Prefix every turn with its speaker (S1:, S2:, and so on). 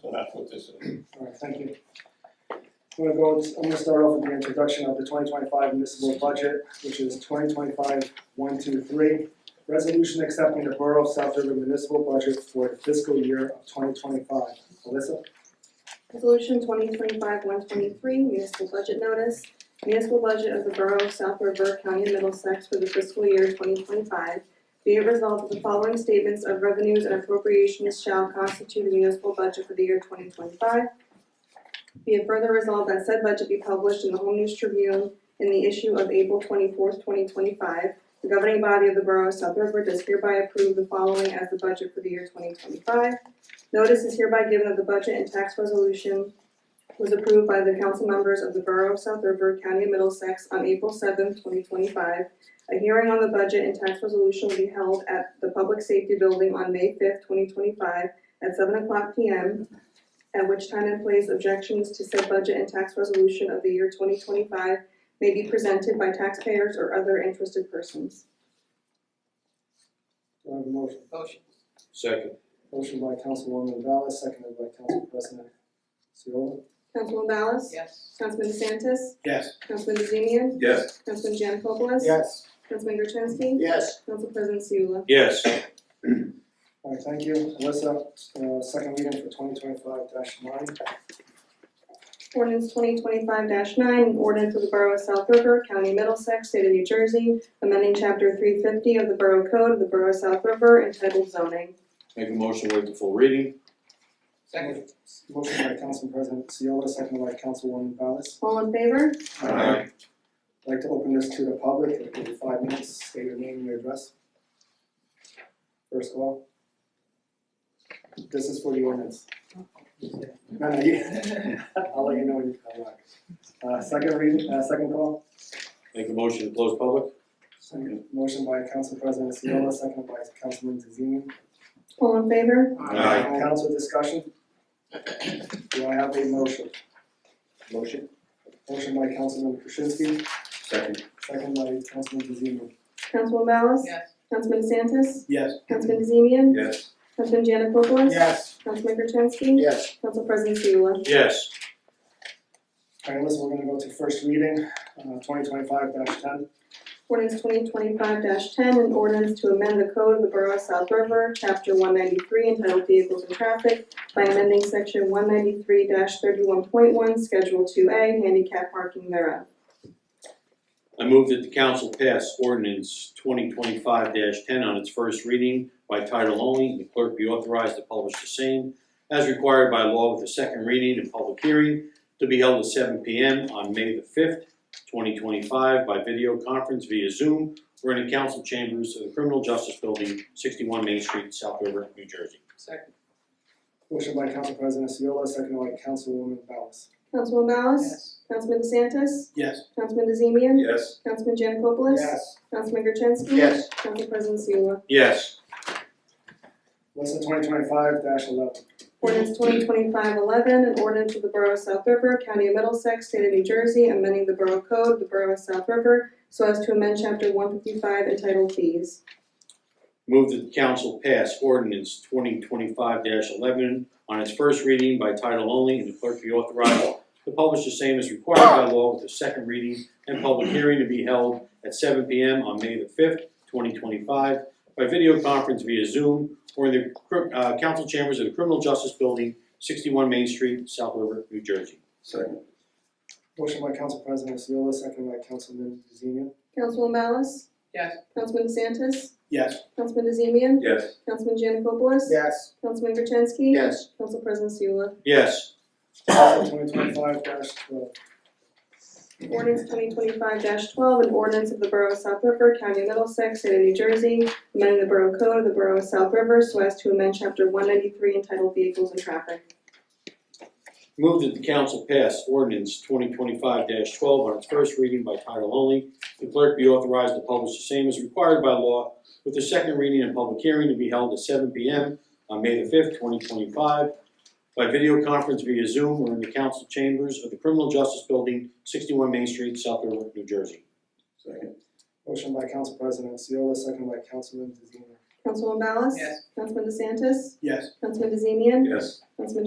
S1: So that's what this is.
S2: Alright, thank you. I'm gonna go, I'm gonna start off with the introduction of the twenty twenty-five municipal budget, which is twenty twenty-five, one, two, three. Resolution accepting the Borough of South River municipal budget for the fiscal year of twenty twenty-five. Alyssa?
S3: Resolution twenty twenty-five one twenty-three, municipal budget notice. Municipal budget of the Borough of South River, County of Middlesex for the fiscal year twenty twenty-five. Be it resolved that the following statements of revenues and appropriations shall constitute the municipal budget for the year twenty twenty-five. Be it further resolved that said budget be published in the Home News Tribune in the issue of April twenty-fourth, twenty twenty-five. The governing body of the Borough of South River does hereby approve the following as the budget for the year twenty twenty-five. Notice is hereby given that the budget and tax resolution was approved by the council members of the Borough of South River, County of Middlesex on April seventh, twenty twenty-five. A hearing on the budget and tax resolution will be held at the Public Safety Building on May fifth, twenty twenty-five at seven o'clock P M. At which time and place objections to said budget and tax resolution of the year twenty twenty-five may be presented by taxpayers or other interested persons.
S2: Do I have a motion?
S4: Motion.
S1: Second.
S2: Motion by Councilwoman Ballas, seconded by Council President Seola.
S3: Councilman Ballas?
S4: Yes.
S3: Councilman DeSantis?
S1: Yes.
S3: Councilman DeZemian?
S1: Yes.
S3: Councilman Janikopoulos?
S2: Yes.
S3: Councilman Gertenski?
S4: Yes.
S3: Council President Seula?
S1: Yes.
S2: Alright, thank you. Alyssa, uh, second reading for twenty twenty-five nine.
S3: Ordinance twenty twenty-five nine, an ordinance of the Borough of South River, County of Middlesex, State of New Jersey, amending chapter three fifty of the Borough Code of the Borough of South River entitled zoning.
S5: Make a motion, wait the full reading?
S4: Second.
S2: Motion by Council President Seola, seconded by Councilwoman Ballas.
S3: All in favor?
S5: Aye.
S2: I'd like to open this to the public, I'll give you five minutes, state your name and your address. First call. This is for the ordinance. No, no, you, I'll let you know when you come back. Uh, second reading, uh, second call,
S5: Make a motion to close public?
S2: Second. motion by Council President Seola, second by Councilman DeZemian.
S3: All in favor?
S5: Aye.
S2: Council discussion? Do I have a motion?
S5: Motion.
S2: Motion by Councilman Krasinski,
S5: Second.
S2: second by Councilman DeZemian.
S3: Councilman Ballas?
S4: Yes.
S3: Councilman DeSantis?
S5: Yes.
S3: Councilman DeZemian?
S5: Yes.
S3: Councilman Janikopoulos?
S2: Yes.
S3: Councilman Gertenski?
S2: Yes.
S3: Council President Seula?
S5: Yes.
S2: Alright, listen, we're gonna go to first reading, uh, twenty twenty-five ten.
S3: Ordinance twenty twenty-five ten, an ordinance to amend the code of the Borough of South River, chapter one ninety-three entitled Vehicles and Traffic by amending section one ninety-three thirty-one point one, schedule two A, handicap parking thereof.
S5: I move that the council pass ordinance twenty twenty-five ten on its first reading by title only, and the clerk be authorized to publish the same as required by law with a second reading and public hearing to be held at seven P M on May the fifth, twenty twenty-five by video conference via Zoom or in the council chambers of the Criminal Justice Building, sixty-one Main Street, South River, New Jersey.
S4: Second.
S2: Motion by Council President Seola, second by Councilwoman Ballas.
S3: Councilman Ballas?
S4: Yes.
S3: Councilman DeSantis?
S5: Yes.
S3: Councilman DeZemian?
S1: Yes.
S3: Councilman Janikopoulos? Councilman Gertenski?
S5: Yes.
S3: Council President Seula?
S5: Yes.
S2: Listen, twenty twenty-five eleven.
S3: Ordinance 2025 11, an ordinance of the Borough of South River, County of Middlesex, State of New Jersey, amending the Borough Code, of the Borough of South River, so as to amend chapter one fifty-five entitled fees.
S5: Move that the council pass ordinance twenty twenty-five eleven on its first reading by title only and the clerk be authorized to publish the same as required by law with a second reading and public hearing to be held at seven P M on May the fifth, twenty twenty-five by video conference via Zoom or in the cri- uh, council chambers of the Criminal Justice Building, sixty-one Main Street, South River, New Jersey.
S1: Second.
S2: Motion by Council President Seola, second by Councilman DeZemian.
S3: Councilwoman Ballas?
S4: Yes.
S3: Councilman DeSantis?
S2: Yes.
S3: Councilman DeZemian?
S1: Yes.
S3: Councilman Janikopoulos?
S2: Yes.
S3: Councilman Gertenski?
S5: Yes.
S3: Council President Seula?
S5: Yes.
S2: Twenty twenty-five twelve.
S3: Ordinance twenty twenty-five twelve, an ordinance of the Borough of South River, County of Middlesex, State of New Jersey, amending the Borough Code of the Borough of South River so as to amend chapter one ninety-three entitled Vehicles and Traffic.
S5: Move that the council pass ordinance twenty twenty-five twelve on its first reading by title only. The clerk be authorized to publish the same as required by law with the second reading and public hearing to be held at seven P M on May the fifth, twenty twenty-five by video conference via Zoom or in the council chambers of the Criminal Justice Building, sixty-one Main Street, South River, New Jersey.
S1: Second.
S2: Motion by Council President Seola, second by Councilman DeZemian.
S3: Councilwoman Ballas?
S4: Yes.
S3: Councilman DeSantis?
S2: Yes.
S3: Councilman DeZemian?
S1: Yes.
S3: Councilman